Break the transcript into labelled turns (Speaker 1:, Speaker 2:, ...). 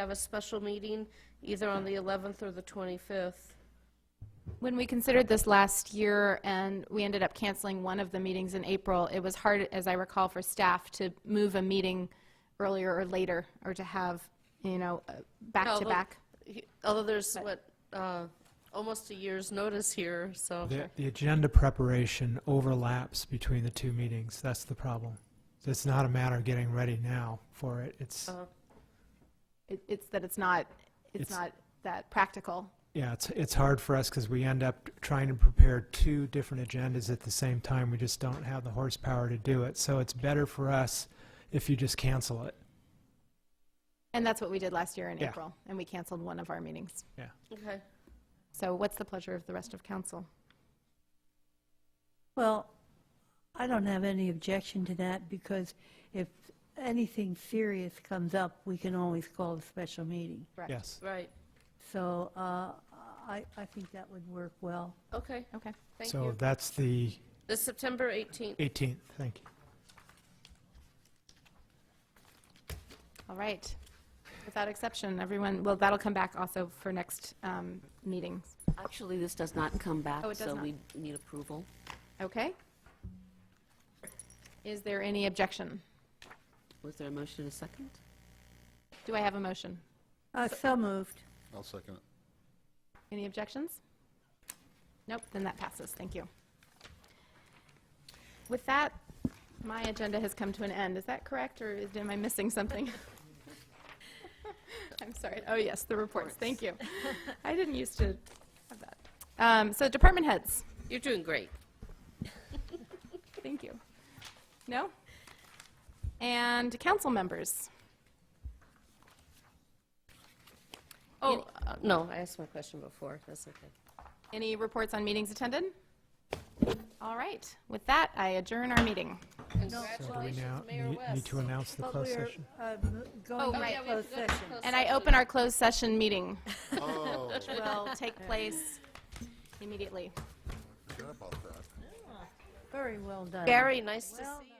Speaker 1: have a special meeting either on the 11th or the 25th.
Speaker 2: When we considered this last year and we ended up canceling one of the meetings in April, it was hard, as I recall, for staff to move a meeting earlier or later or to have, you know, uh, back to
Speaker 1: Although-
Speaker 2: back.
Speaker 1: he- Although there's, what, uh, almost a year's notice here, so.
Speaker 3: The, the agenda preparation overlaps between the two meetings. That's the problem. It's not a matter of getting ready now for it. It's,
Speaker 1: Uh,
Speaker 2: It- It's that it's not, it's
Speaker 3: It's-
Speaker 2: not that practical.
Speaker 3: yeah, it's, it's hard for us because we end up trying to prepare two different agendas at the same time. We just don't have the horsepower to do it. So it's better for us if you just cancel it.
Speaker 2: And that's what we did last year in
Speaker 3: Yeah.
Speaker 2: April, and we canceled one of our meetings.
Speaker 1: Okay.
Speaker 2: So what's the pleasure of the rest of council?
Speaker 4: Well, I don't have any objection to that because if anything serious comes up, we can always call a special meeting.
Speaker 2: Correct.
Speaker 3: Yes.
Speaker 1: Right,
Speaker 4: So uh, I, I think that would work well.
Speaker 1: okay,
Speaker 2: Okay.
Speaker 1: thank
Speaker 3: So
Speaker 1: you.
Speaker 3: that's the
Speaker 1: The September 18th.
Speaker 3: 18th. Thank you.
Speaker 2: All right. Without exception, everyone, well, that'll come back also for next um, meetings.
Speaker 5: Actually, this does not come back,
Speaker 2: Oh, it does
Speaker 5: so
Speaker 2: not.
Speaker 5: we need approval.
Speaker 2: Okay? Is there any objection?
Speaker 5: Was there a motion and a second?
Speaker 2: Do I have a motion?
Speaker 4: Uh, So moved.
Speaker 6: I'll second it.
Speaker 2: Any objections? Nope, then that passes. Thank you. With that, my agenda has come to an end. Is that correct, or is- am I missing something? I'm sorry. Oh, yes, the reports. Thank you. I didn't used to have that. Um, So department heads,
Speaker 1: You're doing great.
Speaker 2: thank you. No? And council members.
Speaker 1: Oh, uh, no, I asked my question before, that's okay.
Speaker 2: Any reports on meetings attended? All right. With that, I adjourn our meeting.
Speaker 3: So do we now
Speaker 1: Congratulations, Mayor
Speaker 3: need- need
Speaker 1: West.
Speaker 3: to announce the
Speaker 4: But
Speaker 3: closed
Speaker 4: we're
Speaker 3: session?
Speaker 4: uh, m-
Speaker 2: right.
Speaker 4: going
Speaker 1: Yeah,
Speaker 4: to
Speaker 1: we have
Speaker 4: closed
Speaker 1: to go to
Speaker 4: session.
Speaker 1: closed
Speaker 2: And I open our closed session meeting,
Speaker 6: Oh,
Speaker 2: which will take place immediately.
Speaker 6: forgot about that.
Speaker 4: Very well done.
Speaker 1: Gary, nice to see you.